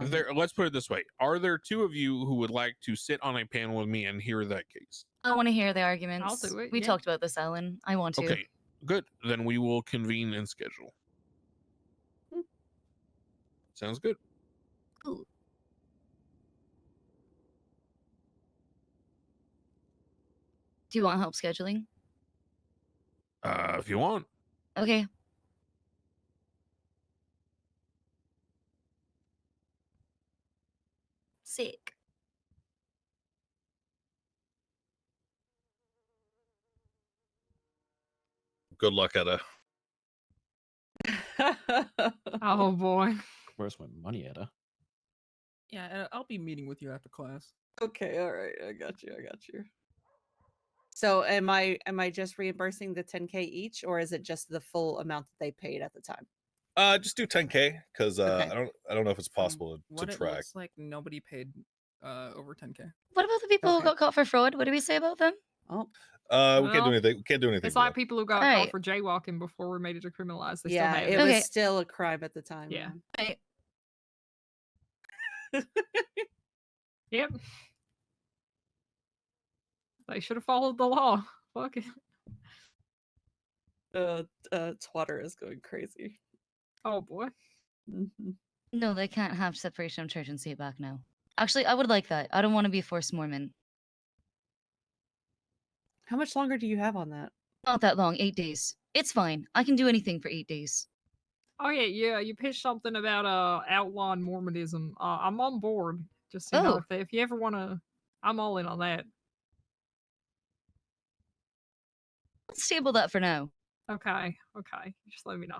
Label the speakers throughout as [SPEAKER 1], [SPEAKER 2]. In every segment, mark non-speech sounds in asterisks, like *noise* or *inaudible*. [SPEAKER 1] Is there, let's put it this way: Are there two of you who would like to sit on a panel with me and hear that case?
[SPEAKER 2] I want to hear the arguments.
[SPEAKER 3] do it,
[SPEAKER 2] We
[SPEAKER 3] yeah.
[SPEAKER 2] talked about this, Ellen. I want to.
[SPEAKER 1] Okay, good. Then we will convene and schedule. Sounds good.
[SPEAKER 2] Cool. Do you want help scheduling?
[SPEAKER 1] Uh, if you want,
[SPEAKER 2] Okay. Sick.
[SPEAKER 4] Good luck, Etta.
[SPEAKER 3] oh boy.
[SPEAKER 5] Where's my money, Etta?
[SPEAKER 6] Yeah, I- I'll be meeting with you after class.
[SPEAKER 7] *laughs* Okay, all right, I got you, I got you. So am I am I just reimbursing the 10k each or is it just the full amount that they paid at the time?
[SPEAKER 4] Uh, just do 10k because uh,
[SPEAKER 7] Okay.
[SPEAKER 4] I don't I don't know if it's
[SPEAKER 6] From
[SPEAKER 4] possible to
[SPEAKER 6] What it
[SPEAKER 4] track.
[SPEAKER 6] looks like nobody paid uh, over 10k.
[SPEAKER 2] What about the people
[SPEAKER 7] Okay.
[SPEAKER 2] who got caught for fraud? What do we say about them?
[SPEAKER 7] Oh,
[SPEAKER 4] Uh, we can't do
[SPEAKER 3] Well,
[SPEAKER 4] anything. We can't do anything.
[SPEAKER 3] It's
[SPEAKER 4] with
[SPEAKER 3] like
[SPEAKER 4] that.
[SPEAKER 3] people who got
[SPEAKER 2] Alright.
[SPEAKER 3] caught for jaywalking before we made it decriminalized. They
[SPEAKER 7] yeah,
[SPEAKER 3] still
[SPEAKER 7] it
[SPEAKER 3] have
[SPEAKER 2] Okay.
[SPEAKER 7] was still a crime at the time.
[SPEAKER 3] Yeah.
[SPEAKER 2] Right.
[SPEAKER 3] it. Yep. They should have followed the law. *laughs* Fuck it.
[SPEAKER 7] Uh, uh Twatter is going crazy.
[SPEAKER 3] Oh boy.
[SPEAKER 7] Mhm.
[SPEAKER 2] No, they can't have separation of church and state back now. Actually, I would like that. I don't want to be a forced Mormon.
[SPEAKER 7] How much longer do you have on that?
[SPEAKER 2] Not that long, eight days. It's fine. I can do anything for eight days.
[SPEAKER 3] Oh yeah, yeah. You pitched something about uh outlawing Mormonism. Uh, I'm on board. Just you know,
[SPEAKER 2] Oh.
[SPEAKER 3] if, they, if you ever want to, I'm all in on that.
[SPEAKER 2] Let's table that for now.
[SPEAKER 3] Okay, okay. Just let me know.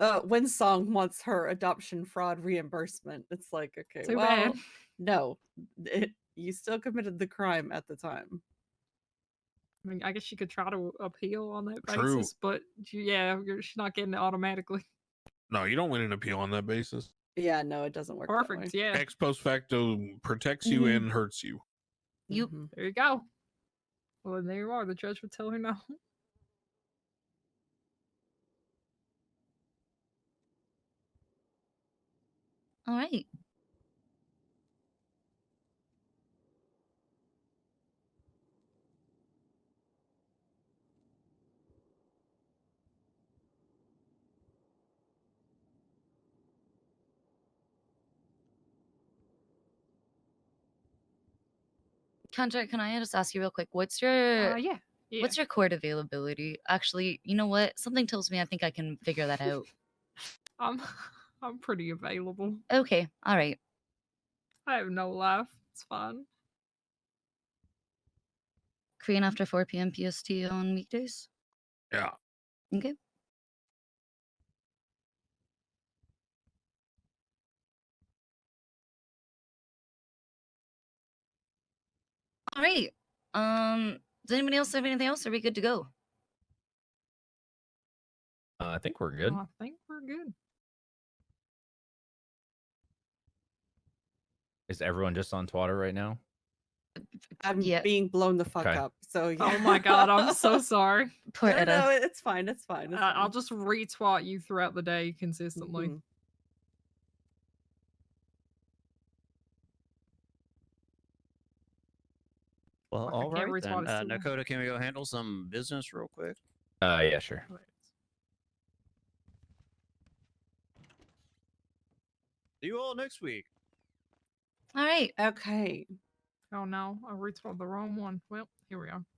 [SPEAKER 7] Uh when Song wants her adoption fraud reimbursement, it's like okay,
[SPEAKER 3] Too
[SPEAKER 7] well, *laughs*
[SPEAKER 3] bad.
[SPEAKER 7] no. It, you still committed the crime at the time.
[SPEAKER 3] I mean, I guess you could try to appeal on that
[SPEAKER 1] True.
[SPEAKER 3] basis, but you- yeah, you're, she's not getting it automatically.
[SPEAKER 1] no, you don't win an appeal on that basis.
[SPEAKER 7] Yeah, no, it doesn't work. that way.
[SPEAKER 3] Perfect. Yeah.
[SPEAKER 1] Ex post facto protects you
[SPEAKER 7] Mhm.
[SPEAKER 1] and hurts you.
[SPEAKER 2] You
[SPEAKER 6] Mm-hmm.
[SPEAKER 7] Mhm.
[SPEAKER 3] There you go. Well, then there you are. The judge would tell her no.
[SPEAKER 2] all right? Kendra, can I just ask you real quick? What's your
[SPEAKER 3] *laughs* Uh, yeah. yeah.
[SPEAKER 2] What's your court availability? Actually, you know what? Something tells me I think I can figure that out.
[SPEAKER 3] I'm, *laughs* I'm pretty available.
[SPEAKER 2] okay, all right.
[SPEAKER 3] I have no life. It's fine.
[SPEAKER 2] Korean after 4 p.m. PST on weekdays?
[SPEAKER 1] Yeah.
[SPEAKER 2] Okay. All right. Um, does anybody else have anything else? Are we good to go?
[SPEAKER 5] Uh, I think we're good.
[SPEAKER 3] I think we're good.
[SPEAKER 5] Is everyone just on Twitter right now?
[SPEAKER 7] I'm
[SPEAKER 2] Yeah.
[SPEAKER 7] being blown the fuck
[SPEAKER 5] Okay.
[SPEAKER 7] up. So yeah.
[SPEAKER 3] Oh my god,
[SPEAKER 7] *laughs*
[SPEAKER 3] I'm so sorry.
[SPEAKER 2] Poor
[SPEAKER 7] no,
[SPEAKER 2] Etta.
[SPEAKER 7] no, it's fine. It's fine.
[SPEAKER 3] Uh,
[SPEAKER 7] It's
[SPEAKER 3] I'll
[SPEAKER 7] fine.
[SPEAKER 3] just retweet you throughout the day consistently.
[SPEAKER 7] Mhm.
[SPEAKER 8] Well,
[SPEAKER 3] Fuck, I
[SPEAKER 8] all
[SPEAKER 3] can't
[SPEAKER 8] right
[SPEAKER 3] retweet
[SPEAKER 8] then.
[SPEAKER 3] it
[SPEAKER 8] Uh,
[SPEAKER 3] still.
[SPEAKER 8] Nakoda, can we go handle some business real quick?
[SPEAKER 5] Uh, yeah, sure.
[SPEAKER 8] See you all next week.
[SPEAKER 2] All right.
[SPEAKER 7] Okay.
[SPEAKER 3] Oh no, I retweeted the wrong one. Well, here we are.